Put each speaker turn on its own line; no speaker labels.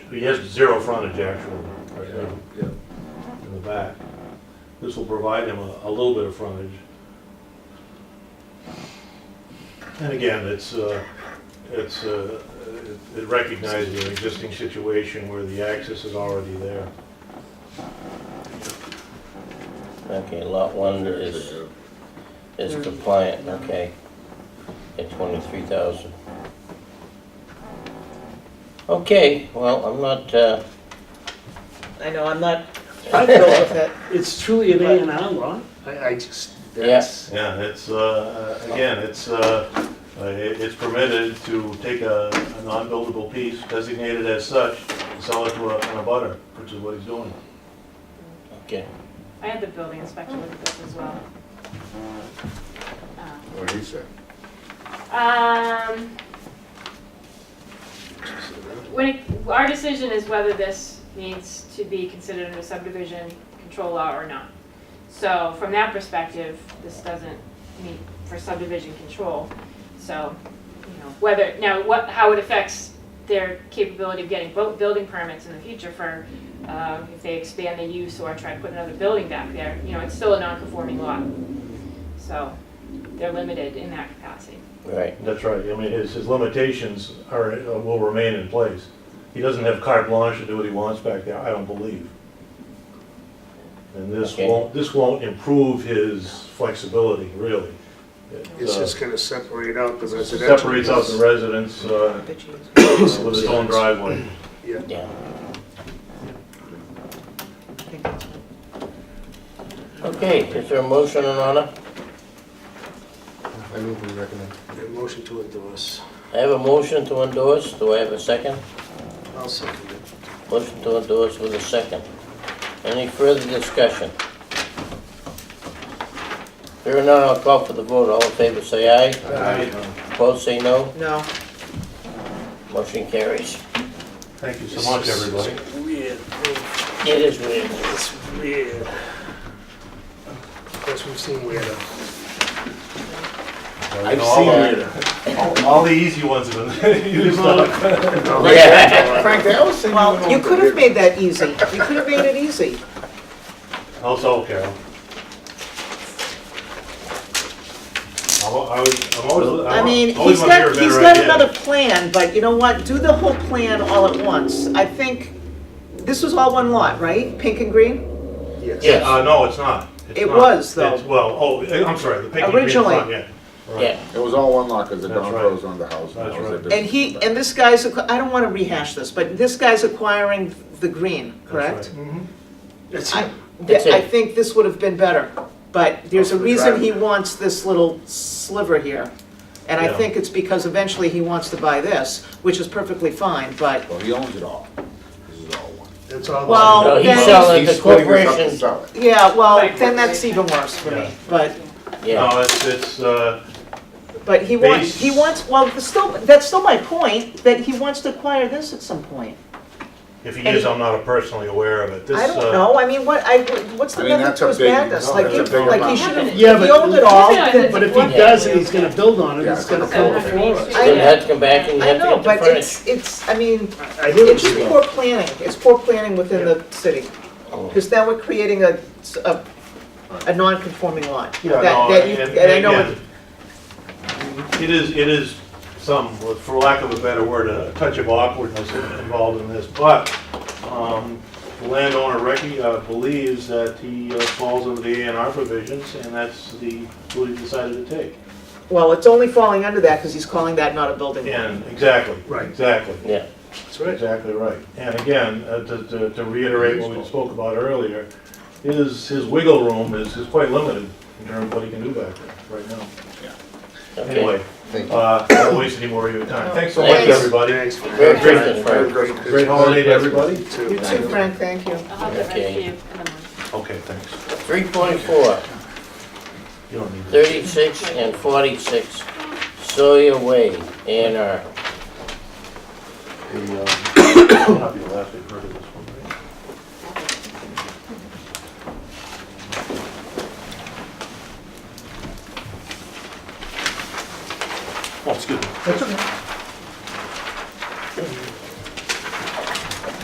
He has zero frontage actually, right now,
Yeah,
in the back. This will provide him a, a little bit of frontage. And again, it's, uh, it's, uh, it- it recognizes an existing situation where the access is already there.
Okay, lot one is, is compliant, okay. At twenty-three thousand. Okay, well, I'm not, uh,
I know, I'm not, I go with it.
It's truly an A and R lot. I, I just, that's,
Yeah, it's, uh, uh, again, it's, uh, uh, it- it's permitted to take a, a non-buildable piece designated as such and sell it to a, an abutter, which is what he's doing.
okay,
I had the building inspector look at this as well. Uh,
what he said.
Um, when, it- our decision is whether this needs to be considered under subdivision control law or not. So from that perspective, this doesn't meet for subdivision control. So, you know, whether, now what, how it affects their capability of getting bu- building permits in the future for, uh, if they expand the use or try to put another building back there, you know, it's still a non-conforming lot. So they're limited in that capacity.
right,
That's right, I mean, his, his limitations are, uh, will remain in place. He doesn't have carte blanche to do what he wants back there, I don't believe. And this
Okay.
won't, this won't improve his flexibility, really. It,
It's
uh,
just gonna separate out the residential.
Separates out the residents, uh, with its own driveway.
Yeah,
yeah.
I think that's what-
Okay, is there a motion in order?
I move we recommend.
the motion to endorse.
I have a motion to endorse, do I have a second?
I'll second it.
Motion to endorse with a second. Any further discussion? Hearing none, I'll call for the vote, all in favor say aye,
Uh,
opposed say no,
No,
motion carries.
Thank you so much, everybody.
Weird,
It is weird.
it's weird. Of course, we've seen weirder.
I've seen it. All- All the easy ones have been used up.
Frank, they always send you an
well, you
order.
could have made that easy. You could have made it easy.
How's Oh, all, Carol? I'm al- I was, I'm always.
I
I'm
mean,
always
he's
wanna hear a
got, he's
better
got
idea.
another plan, but you know what? Do the whole plan all at once. I think, this was all one lot, right? Pink and green?
Yes.
Yes,
Uh, no, it's not. It's
It
not.
was, though.
It's- Well, oh, I'm sorry, the pink and green
Originally.
front, yeah. Right.
yeah,
It was all one lot, because the
That's
Don
right.
Rose owned the house.
That's
that was
right.
their
And he,
business.
and this guy's, acqu- I don't want to rehash this, but this guy's acquiring the green,
That's
correct?
right.
That's
I,
it.
That's
I
it.
think this would have been better, but there's a
Oh, the
reason
driveway.
he wants this little sliver here. And I
Yeah.
think it's because eventually he wants to buy this, which is perfectly fine, but,
Well, he owns it all. This is all one.
That's all.
Well,
no, he's
then-
selling the
He's splitting this up to
corporation,
sell it.
yeah, well,
Right.
then that's even worse for
Yeah.
me. But,
yeah,
No, it's, it's, uh,
but he wants,
Base-
he wants, well, that's still, that's still my point, that he wants to acquire this at some point.
if he
And-
is, I'm not personally aware of it. This,
I don't
uh,
know, I mean, what, I, what's the
I mean,
method
that's
to
a
his
big-
madness?
no,
Like,
that's
he-
a big
like he
amount.
should have,
Yeah,
if he
but-
owned it all,
Yeah,
then.
but if he does it, he's gonna build on it,
Yeah,
it's gonna
it's
fill
gonna
the
fall.
floor. up.
then you have to come back and you
I
have
know,
to get
but
the furniture.
it's, it's, I mean,
I I hear
it's
what
just
you
poor planning, it's poor planning within the city.
Oh.
Because now we're creating a, a, a non-conforming lot.
Yeah,
That-
no,
that you-
and-
And I
and
know,
again,
it-
It is, it is some, with- for lack of a better word, a touch of awkwardness involved in this, but um, the landowner Ricky uh, believes that he uh, falls under the A and R provisions, and that's the, what he decided to take.
well, it's only falling under that because he's calling that not a building lot.
And, exactly.
Right.
Exactly.
Yeah,
That's right.
Exactly right. And again, uh, to- to to reiterate what we spoke about earlier, his, his wiggle room is is quite limited in terms of what he can do back there right now.
okay.
Anyway,
Thank you.
uh, don't waste any more of your time. Thanks so much,
Thanks.
everybody.
Thanks.
Merry Christmas, Frank.
Great holiday to everybody.
You too, Frank, thank you.
I'll have it ready
Okay.
for you in the morning.
Okay, thanks.
Three point four,
You don't need that.
thirty-six and forty-six Sawyer Way, A and R.
The, um, I'll have you last, I've heard of this. Oh,